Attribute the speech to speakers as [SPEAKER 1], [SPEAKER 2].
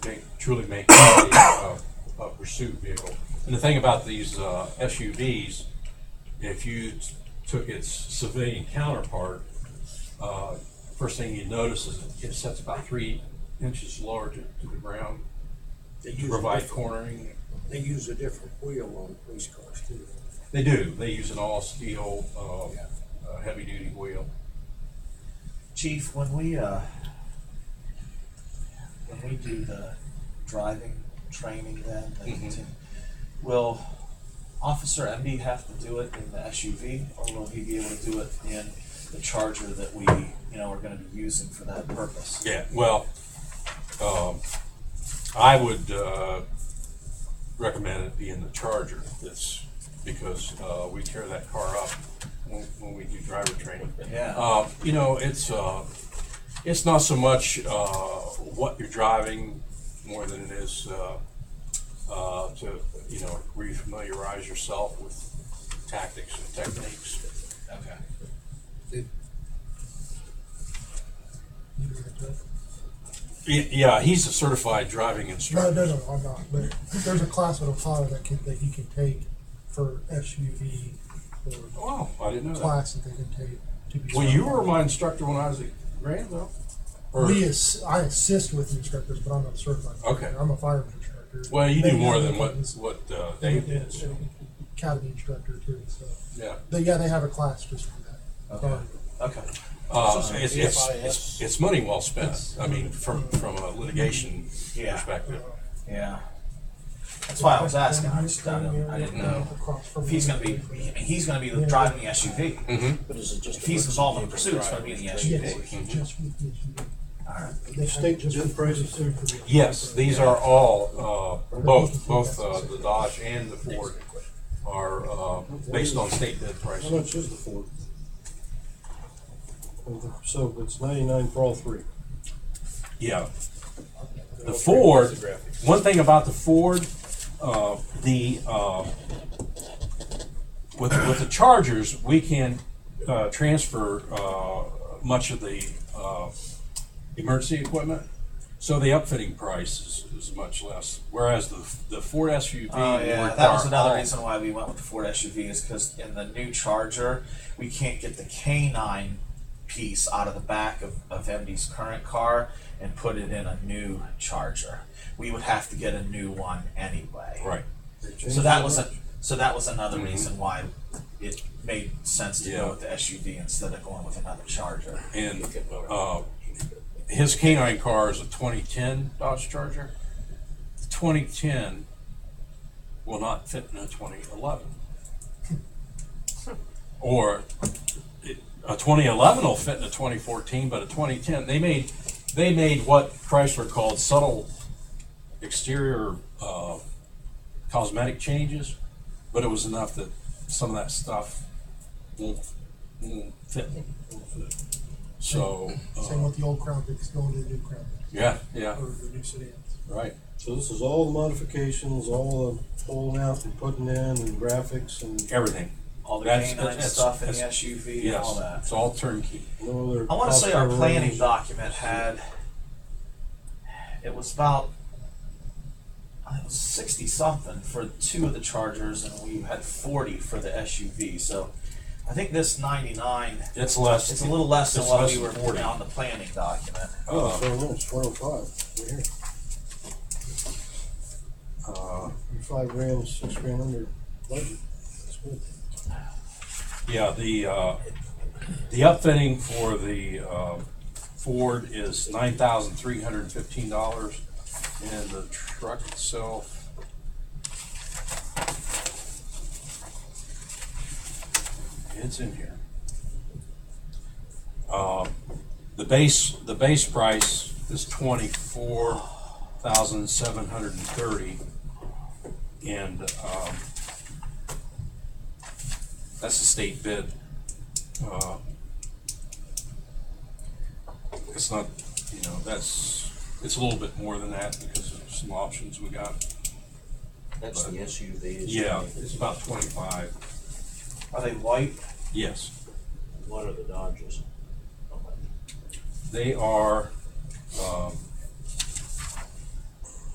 [SPEAKER 1] truly make it a, a, a uh, pursuit vehicle. And the thing about these uh, SUVs, if you t- took its civilian counterpart, uh, first thing you notice is it sets about three inches lower to, to the ground
[SPEAKER 2] They
[SPEAKER 1] to
[SPEAKER 2] use, a
[SPEAKER 1] provide
[SPEAKER 2] different-
[SPEAKER 1] cornering.
[SPEAKER 2] they use a different wheel on police cars too.
[SPEAKER 1] They do. They use an all steel,
[SPEAKER 2] Yeah.
[SPEAKER 1] uh, uh, heavy duty wheel.
[SPEAKER 3] Chief, when we, uh, when we do the driving training then, the
[SPEAKER 1] Mhm.
[SPEAKER 3] contin- will Officer MD have to do it in the SUV or will he be able to do it in the charger that we, you know, are gonna be using for that purpose?
[SPEAKER 1] Yeah, well, um, I would, uh, recommend it be in the Charger, that's, because, uh, we tear that car up when, when we do driver training.
[SPEAKER 3] Yeah,
[SPEAKER 1] Uh, you know, it's, uh, it's not so much, uh, what you're driving more than it is, uh, uh, to, you know, refamiliarize yourself with tactics and techniques.
[SPEAKER 3] okay.
[SPEAKER 1] Y- Yeah, he's a certified driving
[SPEAKER 4] No,
[SPEAKER 1] instructor.
[SPEAKER 4] no, no, I'm not, but there's a class with Apollo that can, that you can take for SUV or
[SPEAKER 1] Wow, Oh, I didn't know that.
[SPEAKER 4] class that they can take to be.
[SPEAKER 1] Well, you were
[SPEAKER 4] certified.
[SPEAKER 1] my instructor when I was at Granville. Or,
[SPEAKER 4] We ass, I assist with the instructors, but I'm not certified.
[SPEAKER 1] Okay.
[SPEAKER 4] I'm a fireman instructor.
[SPEAKER 1] well, you
[SPEAKER 4] They
[SPEAKER 1] do more
[SPEAKER 4] have
[SPEAKER 1] than what
[SPEAKER 4] weapons.
[SPEAKER 1] what uh, Dave
[SPEAKER 4] And-
[SPEAKER 1] did. so,
[SPEAKER 4] and Academy instructor too, so,
[SPEAKER 1] Yeah,
[SPEAKER 4] but yeah, they have a class just for that.
[SPEAKER 3] Okay.
[SPEAKER 4] Um,
[SPEAKER 3] Okay,
[SPEAKER 1] uh,
[SPEAKER 3] So
[SPEAKER 1] it's,
[SPEAKER 3] it's
[SPEAKER 1] it's,
[SPEAKER 3] CFIS.
[SPEAKER 1] it's it's money well spent. I mean, from from a litigation
[SPEAKER 3] Yeah.
[SPEAKER 1] perspective.
[SPEAKER 3] yeah. That's why I was asking, I just, I don't- I didn't know
[SPEAKER 4] Across from
[SPEAKER 3] if he's gonna be, I mean, he's gonna be driving the SUV.
[SPEAKER 2] But is it just?
[SPEAKER 3] If he's involved in pursuit, it's gonna be in the
[SPEAKER 4] Yes,
[SPEAKER 3] SUV.
[SPEAKER 4] just with the SUV.
[SPEAKER 3] Alright.
[SPEAKER 4] The state just appraises them.
[SPEAKER 1] Yes, these are all uh, both both uh, the Dodge and the Ford are uh, based on state bid
[SPEAKER 5] How
[SPEAKER 1] prices.
[SPEAKER 5] much is the Ford? Well, the- So it's ninety-nine for all three.
[SPEAKER 1] Yeah. The Ford, one thing about the Ford, uh, the, uh, with, with the Chargers, we can, uh, transfer, uh, much of the, uh, emergency equipment. So the upfitting price is, is much less, whereas the, the Ford SUV.
[SPEAKER 3] Oh yeah,
[SPEAKER 1] require
[SPEAKER 3] that was another
[SPEAKER 1] all-
[SPEAKER 3] reason why we went with the Ford SUV is because in the new Charger, we can't get the canine piece out of the back of, of MD's current car and put it in a new Charger. We would have to get a new one anyway.
[SPEAKER 1] Right, Mm-hmm.
[SPEAKER 3] So that was a so that was another reason why it made sense to
[SPEAKER 1] Yeah.
[SPEAKER 3] go with the SUV instead of going with another Charger.
[SPEAKER 1] and, uh, his canine car is a twenty-ten Dodge Charger. Twenty-ten will not fit in a twenty-eleven. Or it- a twenty-eleven will fit in a twenty-fourteen, but a twenty-ten, they made, they made what Chrysler called subtle exterior, uh, cosmetic changes, but it was enough that some of that stuff won't, won't fit. So,
[SPEAKER 4] Same
[SPEAKER 1] uh,
[SPEAKER 4] with the old Crown Vics going to the new Crown Vics,
[SPEAKER 1] yeah, yeah,
[SPEAKER 4] or the new sedans.
[SPEAKER 1] right.
[SPEAKER 5] So this is all the modifications, all the pulling out and putting in and graphics and
[SPEAKER 1] Everything.
[SPEAKER 3] All the
[SPEAKER 1] That's-
[SPEAKER 3] canine
[SPEAKER 1] that's-
[SPEAKER 3] stuff in the
[SPEAKER 1] that's-
[SPEAKER 3] SUV and all
[SPEAKER 1] Yes,
[SPEAKER 3] that.
[SPEAKER 1] it's all turnkey.
[SPEAKER 5] no other.
[SPEAKER 3] I want to say our
[SPEAKER 5] cost
[SPEAKER 3] planning
[SPEAKER 5] overruns.
[SPEAKER 3] document had, it was about, I think it was sixty something for two of the Chargers and we had forty for the SUV, so I think this ninety-nine,
[SPEAKER 1] It's less.
[SPEAKER 3] it's a little less than
[SPEAKER 1] it's
[SPEAKER 3] what
[SPEAKER 1] less
[SPEAKER 3] we
[SPEAKER 1] than
[SPEAKER 3] were
[SPEAKER 1] 40.
[SPEAKER 3] on the planning document.
[SPEAKER 5] Oh,
[SPEAKER 1] Uh,
[SPEAKER 5] so no, it's one oh five, right here.
[SPEAKER 1] uh,
[SPEAKER 5] You're five grand, six grand under budget. That's good.
[SPEAKER 1] Yeah, the, uh, the upfitting for the, uh, Ford is nine thousand three hundred and fifteen dollars, and the truck itself. It's in here. Uh, the base, the base price is twenty-four thousand seven hundred and thirty, and, um, that's a state bid. Uh, It's not, you know, that's, it's a little bit more than that because of some options we got.
[SPEAKER 2] That's the SUV.
[SPEAKER 1] Yeah, it's about twenty-five.
[SPEAKER 3] Are they white?
[SPEAKER 1] Yes,
[SPEAKER 2] Oh What are the Dodges?
[SPEAKER 1] they are, um,